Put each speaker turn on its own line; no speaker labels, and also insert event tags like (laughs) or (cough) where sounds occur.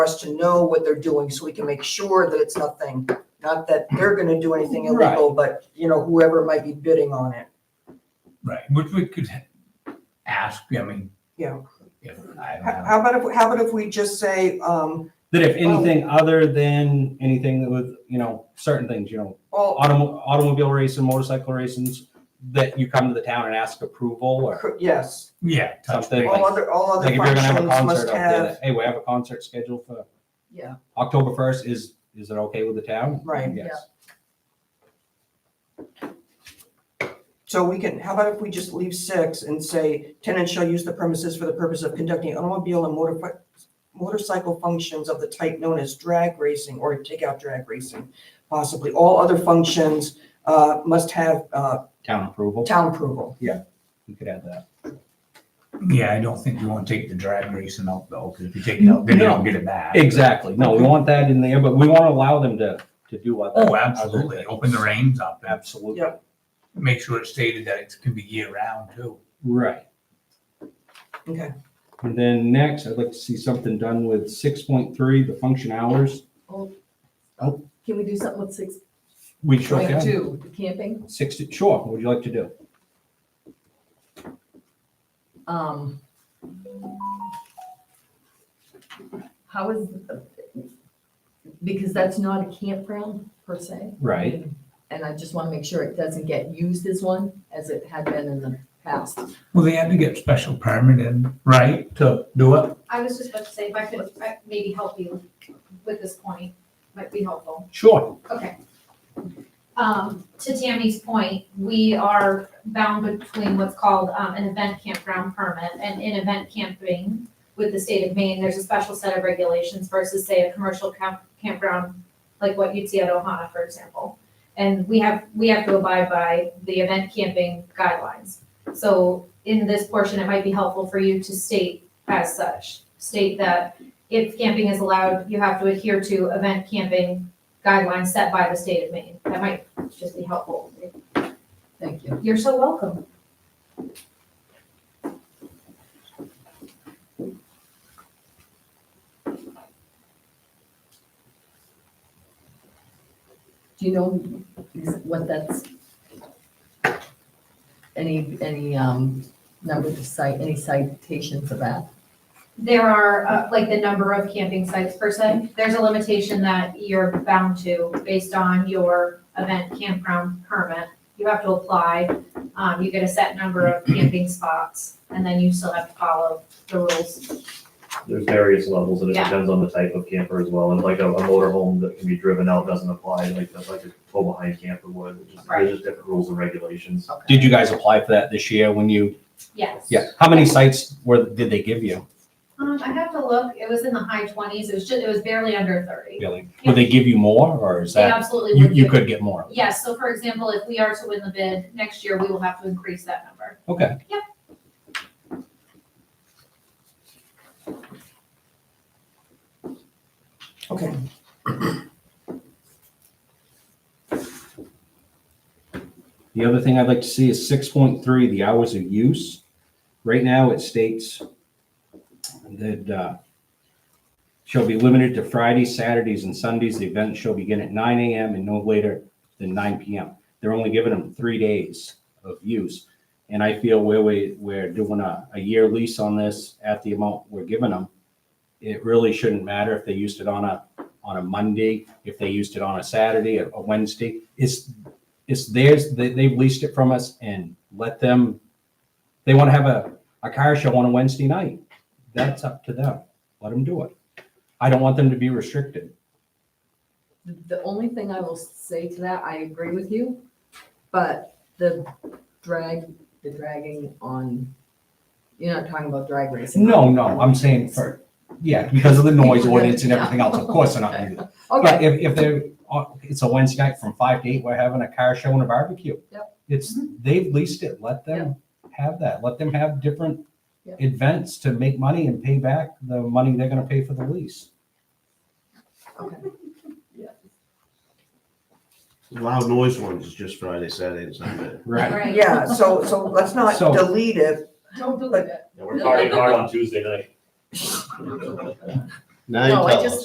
us to know what they're doing so we can make sure that it's nothing, not that they're gonna do anything
Right.
illegal, but, you know, whoever might be bidding on it.
Right, which we could ha- ask, I mean.
Yeah.
If, I don't
How
know.
how about if, how about if we just say, um,
That if anything other than anything that with, you know, certain things, you know,
all,
automo- automobile racing, motorcycle races, that you come to the town and ask approval or
yes,
Yeah. touch
Something
base.
all other, all other
like if you're gonna have a
functions
concert
must
up there,
have,
that, hey, we have a concert scheduled for
yeah,
October first, is, is it okay with the town?
right.
Yes.
So we can, how about if we just leave six and say tenants shall use the premises for the purpose of conducting automobile and motor, motorcycle functions of the type known as drag racing or takeout drag racing, possibly. All other functions, uh, must have, uh,
Town approval,
town approval.
we could add that.
Yeah, I don't think you want to take the drag racing out though, because if you take it out, then they don't get it back.
Exactly, no, we want that in there, but we wanna allow them to, to do what.
Oh, absolutely. Open the reins up and
Absolutely.
Yep.
make sure it's stated that it can be year round too.
Right.
Okay.
And then next, I'd like to see something done with six point three, the function hours.
Can we do something with six
We sure
point
can.
two, the camping?
Sixty, sure, what would you like to do?
Um. How is, because that's not a campground per se.
Right.
And I just want to make sure it doesn't get used as one, as it had been in the past.
Well, they had to get special permit in, right, to do it?
I was just about to say, if I could I- maybe help you with this point, might be helpful.
Sure.
Okay. Um, to Tammy's point, we are bound between what's called, um, an event campground permit and in event camping with the state of Maine, there's a special set of regulations versus say a commercial camp, campground, like what you'd see at Ohana, for example. And we have, we have to abide by the event camping guidelines. So in this portion, it might be helpful for you to state as such, state that if camping is allowed, you have to adhere to event camping guidelines set by the state of Maine. That might just be helpful.
Thank you.
You're so welcome.
Do you know what that's? Any, any, um, number of cite, any citation for that?
There are, uh, like, the number of camping sites per se. There's a limitation that you're bound to based on your event campground permit. You have to apply, um, you get a set
(clears throat)
number of camping spots, and then you still have to follow the rules.
There's various levels, and it
Yeah.
depends on the type of camper as well, and like a, a motorhome that can be driven out doesn't apply, like, that's like a tow behind camper would, which is,
Right.
there's just different rules and regulations.
Okay.
Did you guys apply for that this year when you,
Yes.
yeah, how many sites were, did they give you?
Um, I have to look, it was in the high twenties, it was just, it was barely under thirty.
Billy? Would they give you more or is
They
that,
absolutely
you,
would.
you
do.
could get more?
Yes, so for example, if we are to win the bid next year, we will have to increase that number.
Okay.
Yep.
Okay.
The other thing I'd like to see is six point three, the hours of use. Right now, it states that uh, shall be limited to Fridays, Saturdays, and Sundays. The event shall begin at nine AM and no later than nine PM. They're only giving them three days of use. And I feel where we, we're doing a, a year lease on this at the amount we're giving them, it really shouldn't matter if they used it on a, on a Monday, if they used it on a Saturday, a a Wednesday. It's it's theirs. They, they've leased it from us and let them, they want to have a, a car show on a Wednesday night. That's up to them. Let them do it. I don't want them to be restricted.
The- The only thing I will say to that, I agree with you, but the drag, the dragging on, you're not talking about drag racing.
No, no, I'm saying for, yeah, because of the noise ordinance and everything
(laughs)
else. Of course, they're not going to do that. But
Okay,
if, if they're, on- it's a Wednesday night from five to eight, we're having a car show and a barbecue.
Yep. Mm-hmm.
It's, they've leased it. Let them have that. Let them have different
Yep.
events to make money and pay back the money they're going to pay for the lease.
okay.
Loud noise ones is just Friday, Saturday, and Sunday.
Right.
Yeah, so, so let's not
So-
delete it.
Don't do that.
(laughs)
Yeah, we're partying hard on Tuesday night.
Now you
No, I
tell
just-
us.